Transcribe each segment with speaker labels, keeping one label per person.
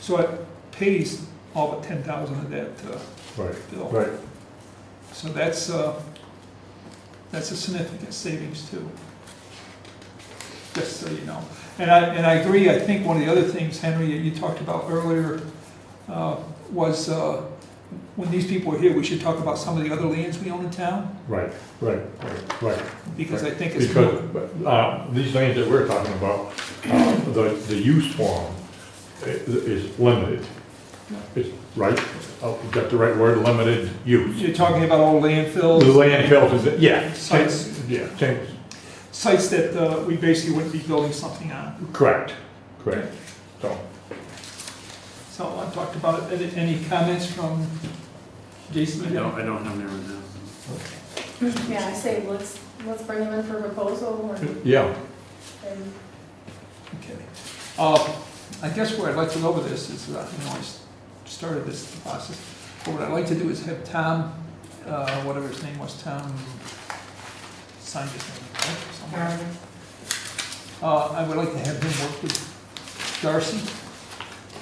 Speaker 1: So it pays all but ten thousand of that uh,
Speaker 2: Right,
Speaker 1: bill.
Speaker 2: right.
Speaker 1: So that's, uh, that's a significant savings too. Just so you know. And I, and I agree, I think one of the other things, Henry, that you talked about earlier, uh, was, uh, when these people are here, we should talk about some of the other lands we own in town,
Speaker 2: Right, right, right, right.
Speaker 1: because I think it's.
Speaker 2: Because, but, uh, these things that we're talking about, uh, the, the use form i- is limited. It's, right, oh, you got the right word, limited use.
Speaker 1: You're talking about old
Speaker 2: The
Speaker 1: landfills.
Speaker 2: landfill is, yeah,
Speaker 1: Sites.
Speaker 2: yeah, ten-
Speaker 1: sites that uh, we basically wouldn't be building something on.
Speaker 2: correct, correct. So,
Speaker 1: So I talked about it. Any- Any comments from Jason?
Speaker 3: I don't, I don't have any right now.
Speaker 4: Yeah, I say, let's, let's bring them in for proposal and,
Speaker 2: yeah,
Speaker 4: and
Speaker 1: Okay. Uh, I guess where I'd like to go with this is, uh, you know, I s- started this process, but what I'd like to do is have Tom, uh, whatever his name was, Tom, sign his name, right, somewhere. Uh, I would like to have him work with Darcy,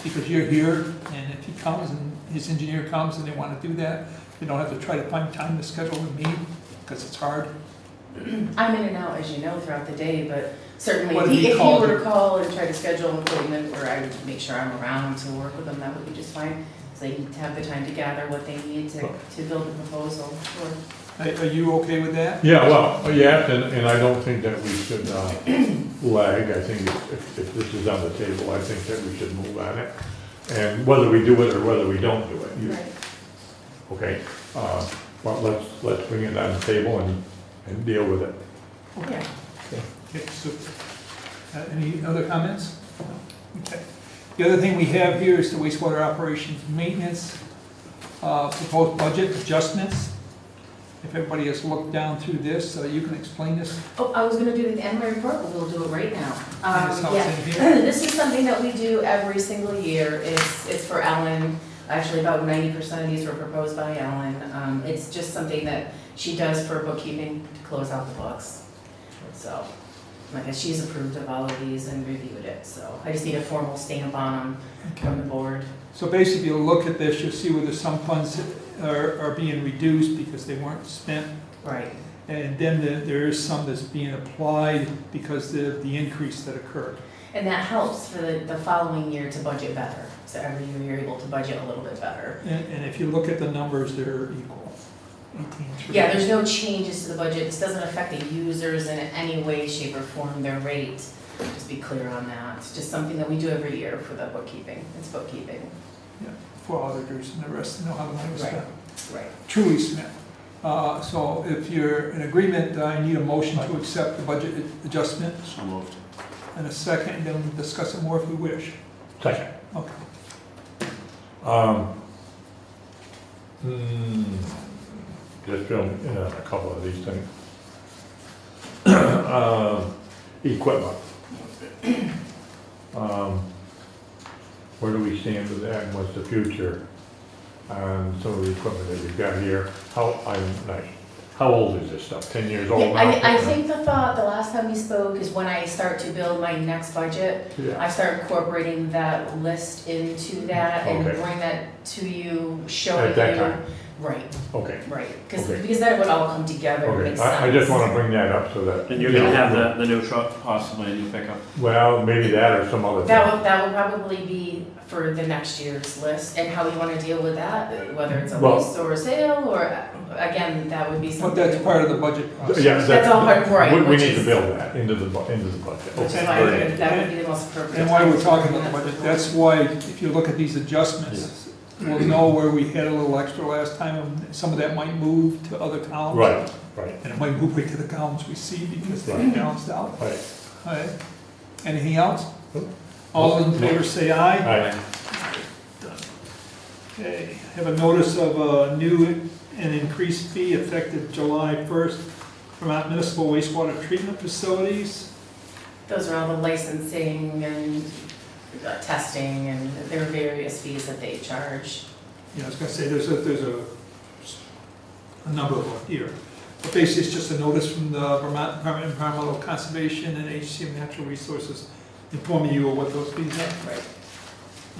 Speaker 1: because you're here, and if he comes and his engineer comes and they want to do that, they don't have to try to find time to schedule with me, because it's hard.
Speaker 5: I'm in and out, as you know, throughout the day, but certainly
Speaker 1: What
Speaker 5: if
Speaker 1: if he
Speaker 5: he, if he
Speaker 1: called
Speaker 5: were
Speaker 1: you?
Speaker 5: to call and try to schedule an appointment where I would make sure I'm around to work with them, that would be just fine. So they need to have the time to gather what they need to, to build a proposal for.
Speaker 1: Are are you okay with that?
Speaker 2: yeah, well, yeah, and, and I don't think that we should, uh, lag. I think if- if, if this is on the table, I think that we should move on it. And whether we do it or whether we don't do it, you-
Speaker 4: Right.
Speaker 2: Okay, uh, well, let's, let's bring it on the table and, and deal with it.
Speaker 5: Yeah.
Speaker 1: Okay, so, uh, any other comments? Okay. The other thing we have here is the wastewater operations maintenance, uh, proposed budget adjustments. If everybody has looked down through this, so you can explain this,
Speaker 5: Oh, I was gonna do it at the end of my report, but we'll do it right now.
Speaker 1: and this
Speaker 5: Um,
Speaker 1: helps
Speaker 5: yeah.
Speaker 1: in here.
Speaker 5: This is something that we do every single year. It's, it's for Ellen. Actually, about ninety percent of these were proposed by Ellen. Um, it's just something that she does for bookkeeping to close out the books. So, like, she's approved of all of these and reviewed it, so I just need a formal stamp on them from the board.
Speaker 1: So basically, you'll look at this, you'll see whether some funds are, are being reduced because they weren't spent.
Speaker 5: Right.
Speaker 1: And then there- there is some that's being applied because of the increase that occurred.
Speaker 5: And that helps for the, the following year to budget better. So every year you're able to budget a little bit better.
Speaker 1: And, and if you look at the numbers, they're equal. 18.
Speaker 5: Yeah, there's no changes to the budget, this doesn't affect the users in any way, shape, or form, their rate. Just be clear on that, it's just something that we do every year for the bookkeeping, it's bookkeeping.
Speaker 1: for auditors and the rest to know how the money was
Speaker 5: Right.
Speaker 1: spent.
Speaker 5: Right.
Speaker 1: Truly spent. Uh, So if you're in agreement, I need a motion to accept the budget adjustment
Speaker 3: So moved.
Speaker 1: and a second, and then we'll discuss it more if we wish.
Speaker 2: Second.
Speaker 1: Okay.
Speaker 2: Um, hmm, Just fill in on a couple of these things. Um, Equipment. Um, Where do we stand with that, and what's the future on some of the equipment that we've got here? How, I'm, like, how old is this stuff, ten years old
Speaker 5: Yeah,
Speaker 2: now?
Speaker 5: I, I think the thought, the last time we spoke is when I start to build my next budget,
Speaker 2: Yeah.
Speaker 5: I start incorporating that list into that and
Speaker 2: Okay.
Speaker 5: bring that to you, showing you.
Speaker 2: At that time.
Speaker 5: Right,
Speaker 2: Okay,
Speaker 5: right, because,
Speaker 2: Okay.
Speaker 5: because that would all come together, and make
Speaker 2: okay,
Speaker 5: sense.
Speaker 2: I, I just wanna bring that up so that.
Speaker 3: And you're gonna have the, the new truck, possibly a new pickup.
Speaker 2: Well, maybe that or some other thing.
Speaker 5: That would, that would probably be for the next year's list and how we wanna deal with that, whether it's a
Speaker 2: Well-
Speaker 5: lease or a sale, or, uh, again, that would be
Speaker 1: But
Speaker 5: something.
Speaker 1: that's part of the budget process.
Speaker 2: Yeah,
Speaker 5: That's all part- right,
Speaker 2: we- We
Speaker 5: which
Speaker 2: need to
Speaker 5: is-
Speaker 2: build that into the, bu- into the budget.
Speaker 5: Which is
Speaker 1: Okay.
Speaker 5: why I think that would be the most appropriate.
Speaker 1: And why we're
Speaker 5: time.
Speaker 1: talking about the budget, that's why, if you look at these adjustments, we'll know where we had a little extra last time, and some of that might move to other columns.
Speaker 2: Right, right,
Speaker 1: And it might move right to the columns we see because they're
Speaker 2: Right.
Speaker 1: balanced out.
Speaker 2: right.
Speaker 1: All right. Anything else?
Speaker 2: Nope.
Speaker 1: All in favor, say aye.
Speaker 2: Aye.
Speaker 1: Okay, have a notice of a new and increased fee effective July 1st, Vermont Municipal Wastewater Treatment Facilities.
Speaker 5: Those are all the licensing and uh, testing and there are various fees that they charge.
Speaker 1: Yeah, I was gonna say, there's a, there's a, a number of them here. But basically, it's just a notice from the Vermont Department of Environmental Conservation and HCM Natural Resources informing you of what those fees are.
Speaker 5: Right.